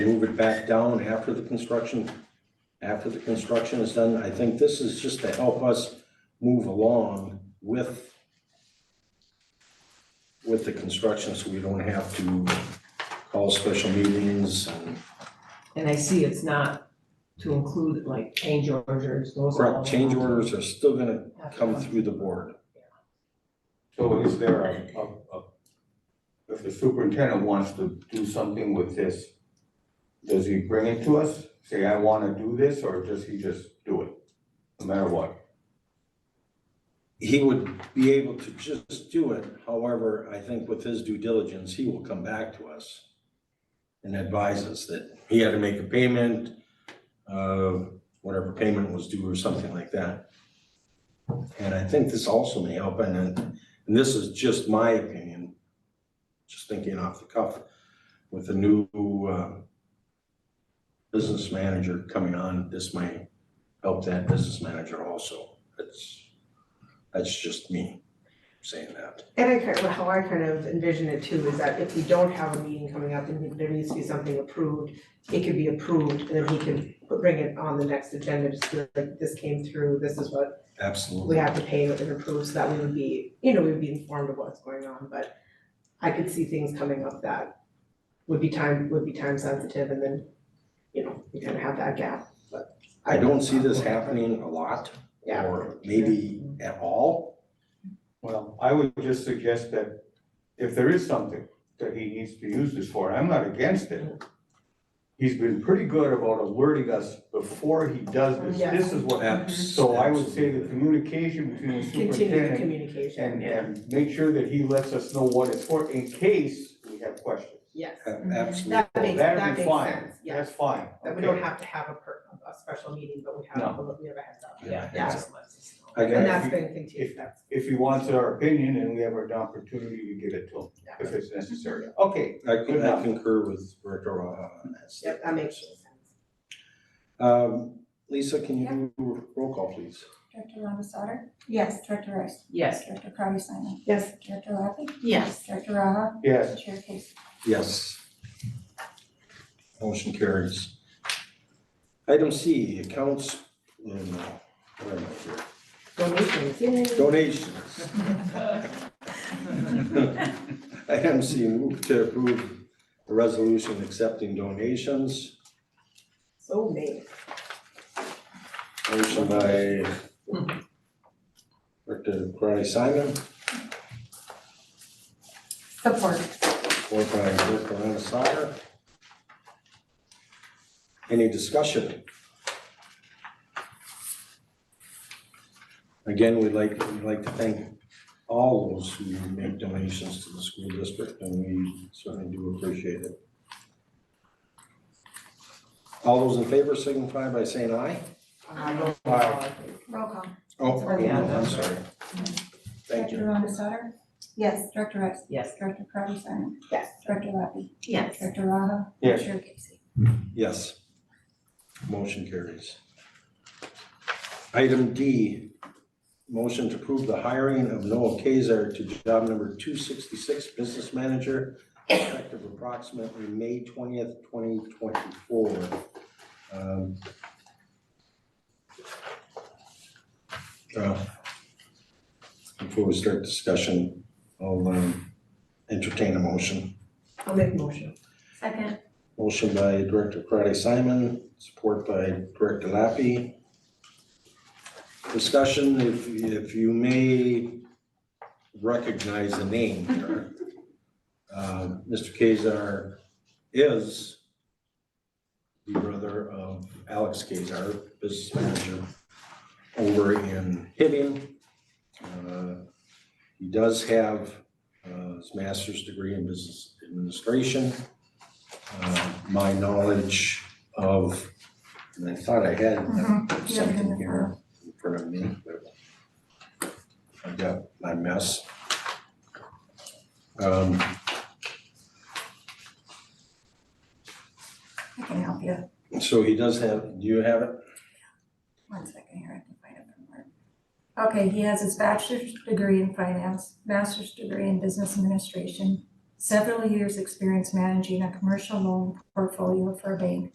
move it back down after the construction, after the construction is done. I think this is just to help us move along with with the construction, so we don't have to call special meetings and And I see it's not to include like change orders, those are all. correct change orders are still gonna come through the board. So is there a, a, a, if the superintendent wants to do something with this, does he bring it to us, say, I wanna do this, or does he just do it, no matter what? He would be able to just do it. However, I think with his due diligence, he will come back to us and advise us that he had to make a payment, uh, whatever payment was due or something like that. And I think this also may help, and then, and this is just my opinion, just thinking off the cuff, with the new, uh, business manager coming on, this might help that business manager also. It's that's just me saying that. And I kind of, how I kind of envision it too is that if we don't have a meeting coming up and there needs to be something approved, it could be approved and then we can put- bring it on the next agenda, just be like, this came through, this is what we Absolutely. have to pay and approve, so that we would be, you know, we would be informed of what's going on, but I could see things coming up that would be time, would be time sensitive and then, you know, we kind of have that gap, but. I don't see this happening a lot Yeah. or maybe at all. Well, I would just suggest that if there is something that he needs to use this for, I'm not against it. He's been pretty good about alerting us before he does this, Yeah. this is what, so I would say the communication between the Continue the superintendent communication, And, uh, yeah, and make sure that he lets us know what it's for in case we have questions. yes, Ab- Absolutely. that makes, that That'd be makes fine, sense, yeah. that's fine, That we don't okay. have to have a per, a special meeting, but we have, we have a heads up. Yeah, Yeah. heads And Okay. that's been continued, that's, If he wants our opinion and we have an opportunity to give it to Yeah. him, if it's necessary, okay. I could, I enough. concur with Director Raha on that. yep, that makes sense. Um, Lisa, can you do roll call, please? Director Lavasada? Yes. Director Rice? Yes, Director Crowdy Simon? Yes. Director Lapi? Yes. Director Raha? Yes, Chair Casey? Yes. Motion carries. Item C, accounts, no, no, where am I here? Donations, yay. Donations. Item C, move to approve the resolution accepting donations. So made. Motion by Director Karati Simon, Support. support by Director Anasaga. Any discussion? Again, we'd like, we'd like to thank all those who make donations to the school district, and we certainly do appreciate it. All those in favor signify by saying aye. Um, Aye. Roll call. Oh, Yeah. I'm sorry. Thank you. Director Lavasada? Yes. Director Rice? yes. Director Crowdy Simon? Yes. Director Lapi? Yes. Director Raha? Yes. Chair Casey? Yes. Motion carries. Item D, motion to approve the hiring of Noah Kazar to job number two sixty-six, business manager, effective approximately May twentieth, twenty twenty-four. Um, uh, Before we start discussion, I'll um, entertain a motion. I'll make a motion. Second. Motion by Director Karati Simon, support by Director Lappy. Discussion, if, if you may recognize the name here. Uh, Mr. Kazar is the brother of Alex Kazar, business manager over in Hibbing. Uh, He does have uh, his master's degree in business administration uh, my knowledge of, and I thought I had Mhm. something here in front of me, but I've got my mess. Um, I can help you. So he does have, do you have it? One second here, I can find it somewhere. Okay, he has his bachelor's degree in finance, master's degree in business administration, several years' experience managing a commercial loan portfolio for a bank